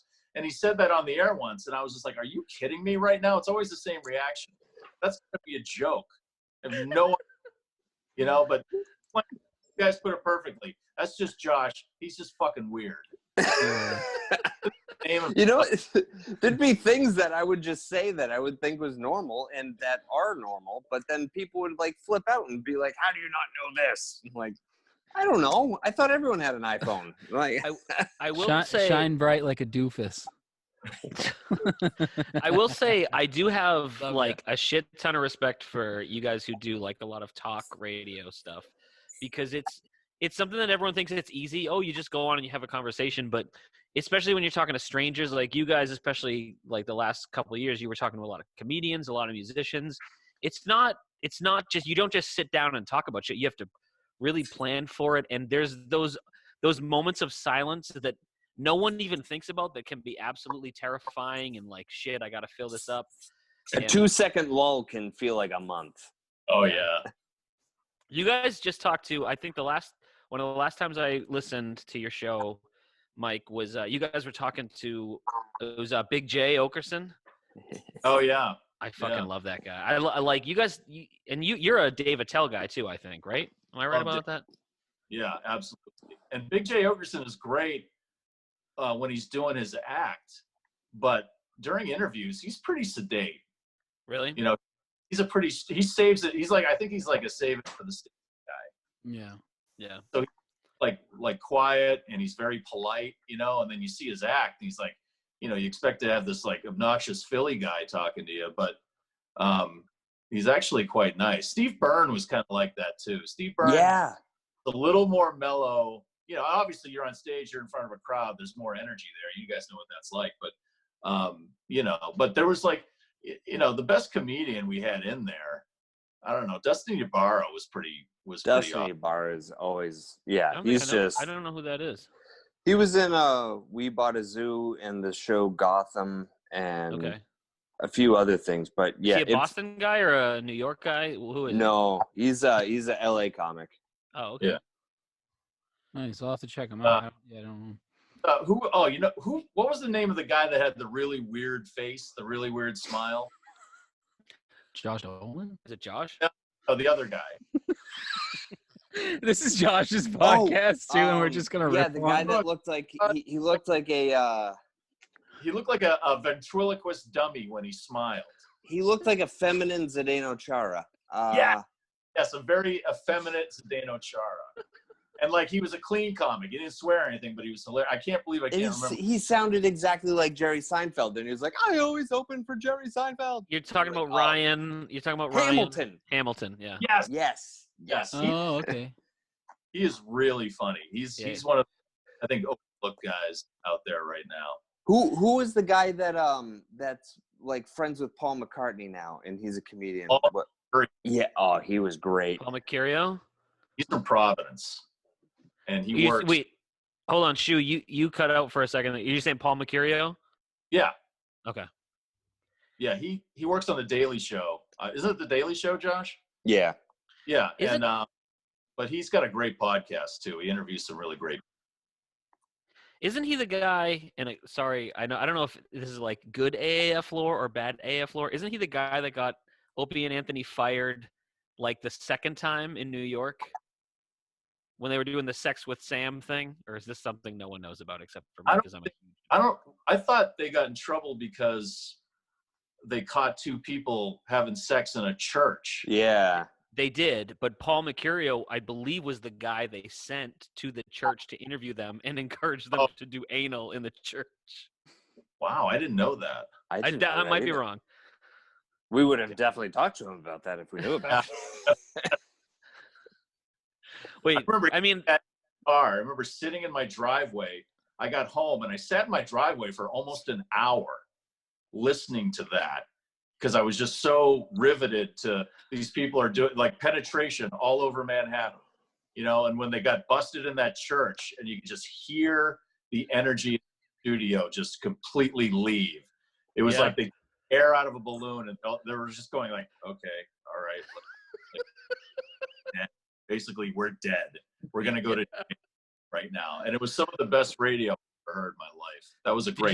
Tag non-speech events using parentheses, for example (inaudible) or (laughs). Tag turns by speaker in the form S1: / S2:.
S1: And he said that on the air once, and I was just like, "Are you kidding me right now?" It's always the same reaction. That's gonna be a joke. I have no, (laughs) you know. But (laughs) you guys put it perfectly. That's just Josh. He's just fucking weird. Name of-
S2: (laughs) you know, (laughs) there'd be things that I would just say that I would think was normal and that are normal, but then people would like flip out and be like, "How do you not know this?" I'm like, I don't know. I thought everyone had an iPhone. (laughs) Like,
S3: I will
S4: shine,
S3: say,
S4: shine (laughs) bright like a doofus.
S3: I will say, I do have
S4: Love
S3: like a shit ton of respect for you guys who do like a lot of talk radio stuff, because it's it's something that everyone thinks it's easy. Oh, you just go on and you have a conversation, but especially when you're talking to strangers, like you guys, especially like the last couple of years, you were talking to a lot of comedians, a lot of musicians. It's not it's not just you don't just sit down and talk about shit. You have to really plan for it, and there's those those moments of silence that no one even thinks about that can be absolutely terrifying and like shit i gotta fill this up
S2: a
S3: Yeah.
S2: two-second lull can feel like a month.
S1: (laughs) oh yeah.
S3: you guys just talked to i think the last one of the last times i listened to your show mike was uh, you guys were talking to it was uh, big j okerson
S1: Oh yeah.
S3: i fucking
S1: Yeah.
S3: love that guy I, li- I like you guys you, and you you're a dave attell guy too i think right am i right
S1: Oh, d-
S3: about that
S1: Yeah, absolutely. And Big J Ogerson is great uh, when he's doing his act, but during interviews, he's pretty sedate.
S3: really
S1: You know, he's a pretty he saves it. He's like I think he's like a save it for the stage,
S4: Yeah.
S3: yeah
S1: like like quiet and he's very polite. You know, and then you see his act, and he's like, you know, you expect to have this like obnoxious Philly guy talking to you, but um, he's actually quite nice. Steve Byrne was kind of like that too. Steve Byrne,
S2: Yeah,
S1: a little more mellow. You know, obviously you're on stage, you're in front of a crowd, there's more energy there. You guys know what that's like, but um, you know, but there was like y- you know, the best comedian we had in there, I don't know, Dustin Ybarra was pretty was pretty
S2: Dustin
S1: awesome.
S2: Bar is always
S3: I
S2: yeah.
S3: don't think
S2: He's
S3: I know,
S2: just
S3: I don't know who that is
S2: he was in uh We Bought a Zoo and the show Gotham and
S3: okay
S2: a few other things, but yeah,
S3: is he a
S2: it's-
S3: boston guy or a new york guy who is he?
S2: No, he's a he's a LA comic.
S3: oh okay
S1: Yeah.
S4: Nice. I'll have to check them
S1: Uh,
S4: out. I don't- yeah, I don't know.
S1: Uh, who oh, you know, who what was the name of the guy that had the really weird face, the really weird smile?
S4: Josh Dolan?
S3: is it josh
S1: Oh, the other guy.
S4: (laughs) this is Josh's
S2: podcast,
S4: too, and we're
S2: um,
S4: just gonna
S2: yeah,
S4: rip
S2: the
S4: on
S2: guy
S4: it.
S2: that looked like
S3: uh,
S2: he, he looked like a uh,
S1: He looked like a, a ventriloquist dummy when he smiled.
S2: he looked like a feminine Zdeno Chara. Uh,
S1: Yeah. Yes, a very effeminate Zdeno Chara. And like he was a clean comic. He didn't swear or anything, but he was hilarious. I can't believe I
S2: and he,
S1: can't
S2: s-
S1: remember.
S2: he sounded exactly like Jerry Seinfeld, and he was like, "I always open for Jerry Seinfeld."
S3: You're talking
S2: Like,
S3: about
S2: oh,
S3: Ryan. You're talking about Ryan
S2: Hamilton.
S3: Hamilton. Yeah.
S1: Yes,
S2: Yes,
S1: yes.
S2: yes.
S1: he-
S2: (laughs)
S4: Oh, okay.
S1: he is really funny. He's
S3: Yeah.
S1: he's one of I think overlooked guys out there right now.
S2: Who who is the guy that um that's like friends with Paul McCartney now, and he's a comedian.
S1: Paul
S2: What-
S1: McCartney.
S2: Yeah. Oh, he was great.
S3: Paul Mercurio.
S1: He's from Providence, and he
S3: You-
S1: works.
S3: Wait, hold on, Shu. You you cut out for a second. You're saying Paul Mercurio?
S1: Yeah,
S3: Okay.
S1: yeah. He he works on the Daily Show. Uh, isn't it the Daily Show, Josh?
S2: Yeah.
S1: Yeah,
S3: Is
S1: and
S3: it-
S1: uh, but he's got a great podcast too. He interviews some really great.
S3: Isn't he the guy? And I, sorry, I know I don't know if this is like good AAF lore or bad AAF lore. Isn't he the guy that got Opie and Anthony fired like the second time in New York when they were doing the sex with Sam thing? Or is this something no one knows about except for
S1: I
S3: me?
S1: don't
S3: Because I'm a
S1: think- I don't. I thought they got in trouble because they caught two people having sex in a church.
S2: Yeah.
S3: They did, but Paul Mercurio, I believe, was the guy they sent to the church to interview them and (laughs) encourage them
S1: Oh.
S3: to do anal in the church.
S1: Wow, I didn't know that.
S3: I,
S2: didn't
S3: d-
S2: know
S3: I
S2: that
S3: might be
S2: either.
S3: wrong.
S2: We would have definitely talked to him about that if we knew about it.
S3: Wait, I,
S1: remember-
S3: mean,
S1: car. I remember sitting in my driveway. I got home and I sat in my driveway for almost an hour listening to that because I was just so riveted to these people are doing like penetration all over Manhattan, you know. And when they got busted in that church, and you could just hear the energy in the studio just completely leave. It was
S3: Yeah.
S1: like the air out of a balloon, and all- they were just going like, "Okay, all right." (laughs) Basically, we're dead. We're gonna go to right now. And it was some of the best radio I ever heard in my life. That was a great